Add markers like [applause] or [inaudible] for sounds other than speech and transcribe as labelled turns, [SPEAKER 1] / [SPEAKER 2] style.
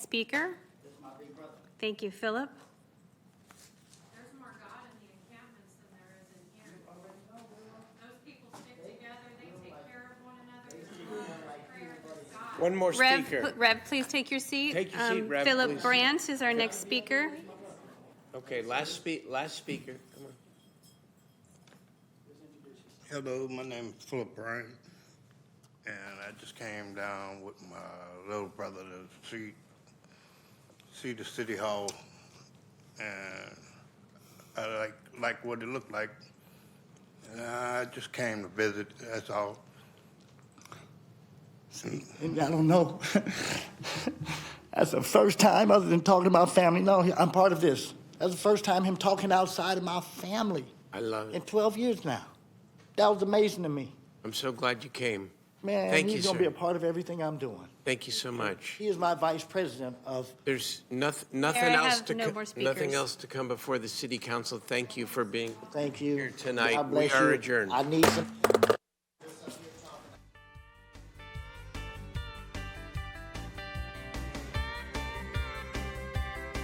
[SPEAKER 1] speaker. Thank you, Philip.
[SPEAKER 2] There's more God in the encampments than there is in here. Those people stick together, they take care of one another, there's constant prayer, there's God.
[SPEAKER 3] One more
[SPEAKER 1] Rev,
[SPEAKER 3] speaker.
[SPEAKER 1] pl- Rev, please take your seat.
[SPEAKER 3] Take your seat,
[SPEAKER 1] Um,
[SPEAKER 3] Rev,
[SPEAKER 1] Philip
[SPEAKER 3] please.
[SPEAKER 1] Brandt is our next speaker.
[SPEAKER 3] Okay, last spe, last speaker, come on.
[SPEAKER 4] Hello, my name is Philip Bryant, and I just came down with my little brother to see, see the city hall. And I like, like what it looked like. And I just came to visit, that's all.
[SPEAKER 5] And I don't know. [laughs] That's the first time, other than talking about family, no, I'm part of this. That's the first time him talking outside of my family
[SPEAKER 3] I love
[SPEAKER 5] in
[SPEAKER 3] it.
[SPEAKER 5] 12 years now. That was amazing to me.
[SPEAKER 3] I'm so glad you came.
[SPEAKER 5] Man,
[SPEAKER 3] Thank
[SPEAKER 5] he's
[SPEAKER 3] you,
[SPEAKER 5] gonna be
[SPEAKER 3] sir.
[SPEAKER 5] a part of everything I'm doing.
[SPEAKER 3] Thank you so much.
[SPEAKER 5] He is my vice president of.
[SPEAKER 3] There's nothing, nothing
[SPEAKER 1] There, I
[SPEAKER 3] else
[SPEAKER 1] have
[SPEAKER 3] to,
[SPEAKER 1] no
[SPEAKER 3] co-
[SPEAKER 1] more speakers.
[SPEAKER 3] nothing else to come before the city council. Thank you for being.
[SPEAKER 5] Thank you.
[SPEAKER 3] Here tonight,
[SPEAKER 5] God bless
[SPEAKER 3] we are
[SPEAKER 5] you.
[SPEAKER 3] adjourned.
[SPEAKER 5] I need some.